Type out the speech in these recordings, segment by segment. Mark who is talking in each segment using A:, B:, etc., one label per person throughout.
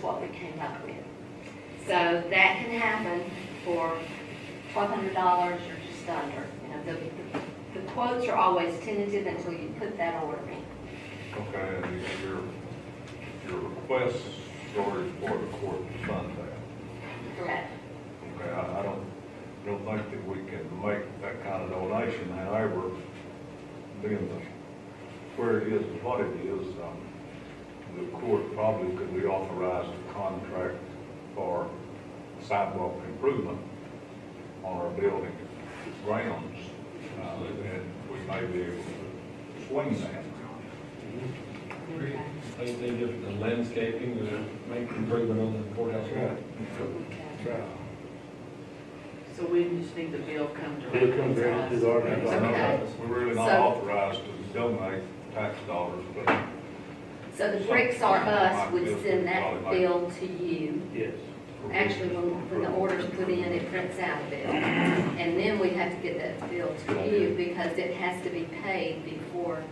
A: what we came up with. So that can happen for twelve hundred dollars or just under. You know, the, the quotes are always tentative until you put that order in.
B: Okay, and your, your request story is for the court to fund that.
A: Correct.
B: Okay, I, I don't, don't think that we can make that kind of donation, however, being the, where it is and what it is, um, the court probably could be authorized to contract for sidewalk improvement on our building grounds, uh, and we may be able to swing that.
C: Same thing, just the landscaping, uh, make improvement on the courthouse wall.
A: Okay.
D: So we just need the bill come direct.
E: Bill come direct to the
B: We're
E: ordinance
A: Okay.
B: really not
A: So-
B: authorized to donate tax dollars, but
A: So the bricks are us would send that bill to you.
E: Yes.
A: Actually, when, when the order's put in, it prints out a bill. And then we have to get that bill to you because it has to be paid before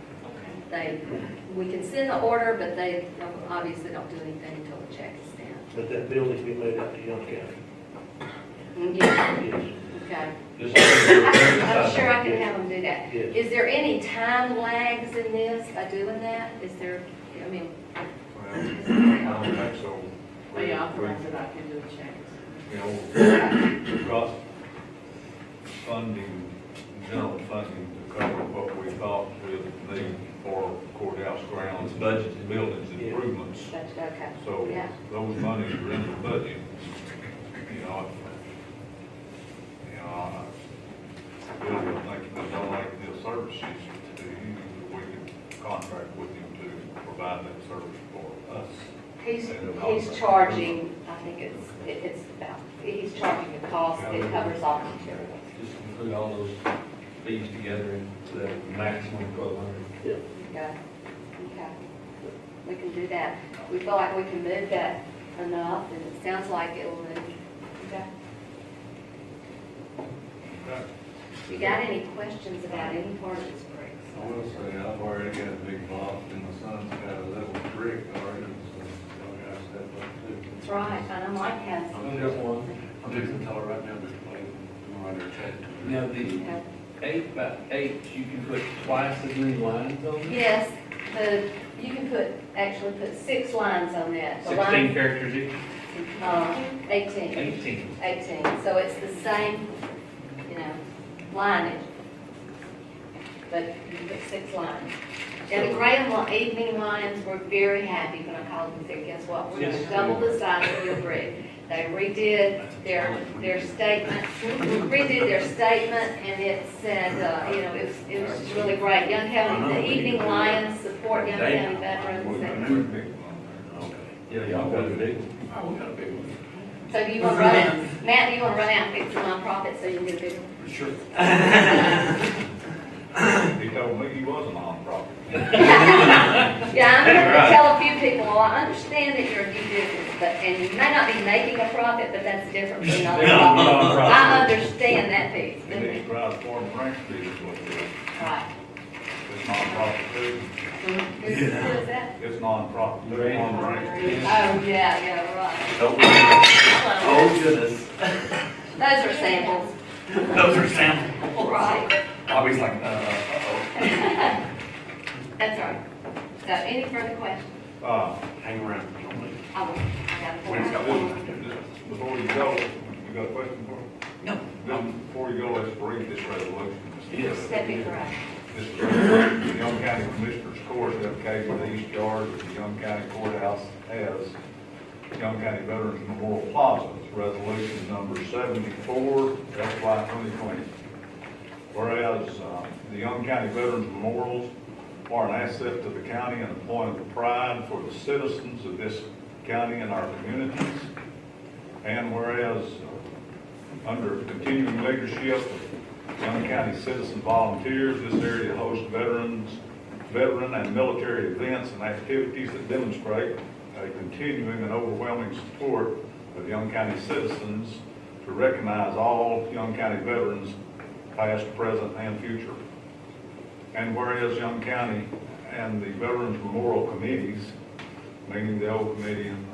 A: they, we can send the order, but they don't- obviously don't do anything until the check is down.
E: But that bill needs to be made out to Young County.
A: Yeah,
E: Yes.
A: okay.
C: Just-
A: I- I'm sure I can have them do that.
E: Yes.
A: Is there any time lags in this by doing that? Is there, I mean,
B: well, I don't think so.
D: Are you authorized that I can do a check?
B: You know, we've got funding, general funding to cover what we thought we'd need for courthouse grounds, budgets, buildings, improvements.
A: that's okay.
B: So
A: Yeah.
B: those monies are in the budget, you know. You know, I still would think that I like the services to you, that we could contract with him to provide that service for us.
A: He's, he's charging, I think it's, it- it's about, he's charging the cost, it covers all materials.
C: Just include all those fees together into the maximum twelve hundred.
A: Okay, okay. We can do that. We feel like we can move that enough, and it sounds like it will move. Okay.
B: Okay.
A: You got any questions about any part of this break?
F: I will say, I've already got a big box, and my son's got a little brick already, so y'all gotta step up too.
A: That's right, and I'm like, yes.
C: I'm just one.
F: I'm just telling right now, this plane, I'm right there.
C: Now, the
A: Okay.
C: eight by eight, you can put twice as many lines on it?
A: Yes, the, you can put, actually put six lines on that. The
C: Sixteen
A: line,
C: characters, each?
A: uh, Eighteen.
C: eighteen.
A: 18, so it's the same, you know, lineage, but you put six lines. Now, the gray and li- evening lines were very happy when I called and said, guess what? We're gonna
C: Yes.
A: double the size of your brick. They redid their, their statement, redid their statement, and it said, uh, you know, it was, it was just really great. Young County, the evening lions support Young County veterans. and-
C: Yeah, y'all got a big one.
F: Oh, we got a big one.
A: So do you wanna run out, Matt, do you wanna run out and fix the nonprofit so you can get a bigger one?
F: Sure.
B: He told me he was a nonprofit.
A: Yeah, I'm
C: Right.
A: gonna tell a few people, well, I understand that you're a new business, but, and you may not be making a profit, but that's different from not a profit. I understand that piece.
B: He needs to ride four Frank Street, is what it is.
A: Right.
B: It's nonprofit too.
A: Who's, who is that?
B: It's nonprofit.
C: Right.
B: It's on Frank
A: Oh,
B: Street.
A: yeah, yeah, right. Hello.
F: Oh, goodness.
A: Those are samples,
F: Those are samples.
A: right?
F: Bobby's like, uh, uh-oh.
A: That's right. So any further questions?
B: Uh,
F: Hang around, don't leave.
A: I will, I
F: Wait,
A: got
F: got
A: one.
F: one.
B: just Before you go, you got a question for me? No. Before you go, let's read this resolution.
F: Yes.
A: Step it right.
B: This is the Young County Commissioners Court, dedicated to the east yard of the Young County Courthouse as Young County Veterans Memorial Plaza. It's Resolution number seventy-four, FY twenty twenty. Whereas, uh, the Young County Veterans Memorials are an asset to the county and a point of pride for the citizens of this county and our communities. And whereas, uh, under continuing leadership of Young County citizen volunteers, this area hosts veterans, veteran and military events and activities that demonstrate a continuing and overwhelming support of Young County citizens to recognize all Young County veterans, past, present, and future. And whereas Young County and the Veterans Memorial Committees, meaning the old committee and